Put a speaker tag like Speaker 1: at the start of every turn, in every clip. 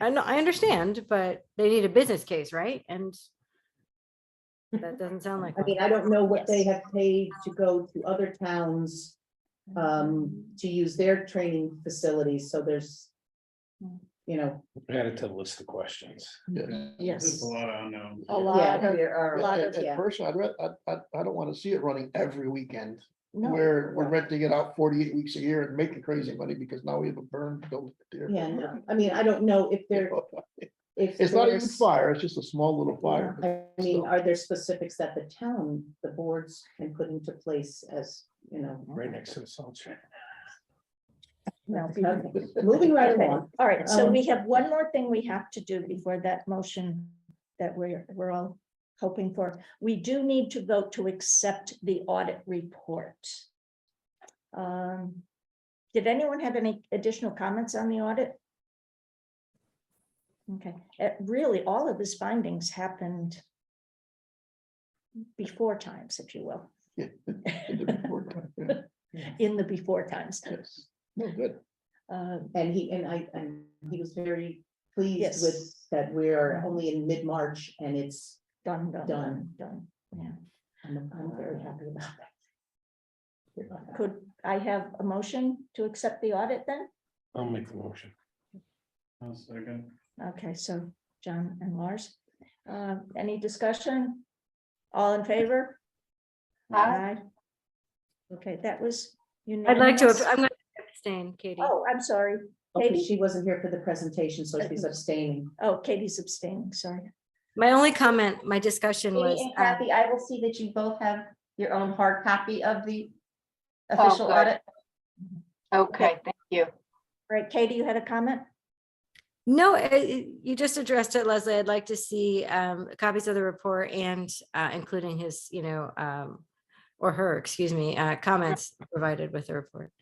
Speaker 1: I know, I understand, but they need a business case, right? And that doesn't sound like,
Speaker 2: I
Speaker 1: one.
Speaker 2: mean, I don't know what they have paid to go to other towns um,
Speaker 3: Mm-hmm.
Speaker 2: to use their training facilities, so there's,
Speaker 3: Mm.
Speaker 2: you know,
Speaker 4: Added to the list of questions.
Speaker 3: Yes.
Speaker 5: There's a lot of unknowns.
Speaker 3: A
Speaker 2: yeah,
Speaker 3: lot of,
Speaker 2: there
Speaker 3: a
Speaker 2: are,
Speaker 3: lot of,
Speaker 2: yeah.
Speaker 6: At first, I'd, re- I, I, I don't wanna see it running every weekend,
Speaker 3: no,
Speaker 6: where we're
Speaker 2: no.
Speaker 6: renting it out forty-eight weeks a year and making crazy money, because now we have a burn building there.
Speaker 2: yeah, no. I mean, I don't know if they're, if.
Speaker 6: It's not even
Speaker 2: there's-
Speaker 6: fire, it's just a small little fire.
Speaker 2: I mean, are there specifics that the town, the boards can put into place as, you know?
Speaker 4: Right next to the salt shed.
Speaker 3: no.
Speaker 2: Okay, Moving right
Speaker 3: Okay,
Speaker 2: along,
Speaker 3: All right, so
Speaker 2: Um,
Speaker 3: we have one more thing we have to do before that motion that we're, we're all hoping for. We do need to vote to accept the audit report. Um, Did anyone have any additional comments on the audit? Okay, uh, really, all of his findings happened before times, if you will,
Speaker 6: Yes.
Speaker 3: in the before times.
Speaker 6: No, good.
Speaker 3: Uh,
Speaker 2: and he, and I, and he was very pleased
Speaker 3: Yes.
Speaker 2: with that we're only in mid-March and it's,
Speaker 3: Done, done, done,
Speaker 2: Done.
Speaker 3: done, yeah.
Speaker 2: I'm, I'm very happy about that.
Speaker 3: Could I have a motion to accept the audit then?
Speaker 4: I'll make the motion.
Speaker 5: One second.
Speaker 3: Okay, so John and Lars, Uh, any discussion? All in favor? Aye. Okay, that was.
Speaker 1: I'd like to,
Speaker 3: unanimous.
Speaker 1: I'm gonna abstain, Katie.
Speaker 3: Oh, I'm sorry.
Speaker 2: Okay,
Speaker 3: Katie?
Speaker 2: she wasn't here for the presentation, so she's abstaining.
Speaker 3: Oh, Katie's abstaining, sorry.
Speaker 1: My only comment, my discussion was.
Speaker 7: Katie and
Speaker 1: uh,
Speaker 7: Kathy, I will see that you both have your own hard copy of the official
Speaker 8: good.
Speaker 7: audit.
Speaker 8: Okay, thank you.
Speaker 3: All right, Katie, you had a comment?
Speaker 1: No, uh, y- you just addressed it, Leslie. I'd like to see um, copies of the report and uh, including his, you know, um, or her, excuse me, uh, comments provided with the report.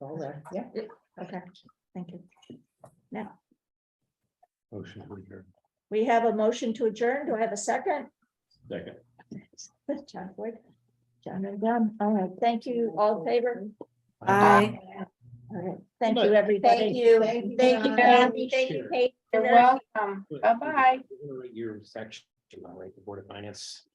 Speaker 2: All there, yeah.
Speaker 3: Okay, thank you.
Speaker 4: Motion to adjourn.
Speaker 3: We have a motion to adjourn. Do I have a second?
Speaker 4: Second.
Speaker 3: John Boyd. John and John, all right, thank you, all in favor.
Speaker 1: Aye.
Speaker 3: All right, thank you, everybody.
Speaker 7: Thank you.
Speaker 2: Thank you,
Speaker 7: Thank you,
Speaker 2: guys.
Speaker 7: Kathy. Thank you,
Speaker 4: Sure.
Speaker 7: Kate.
Speaker 8: You're welcome. Bye-bye.
Speaker 4: Your section, I'll write the Board of Finance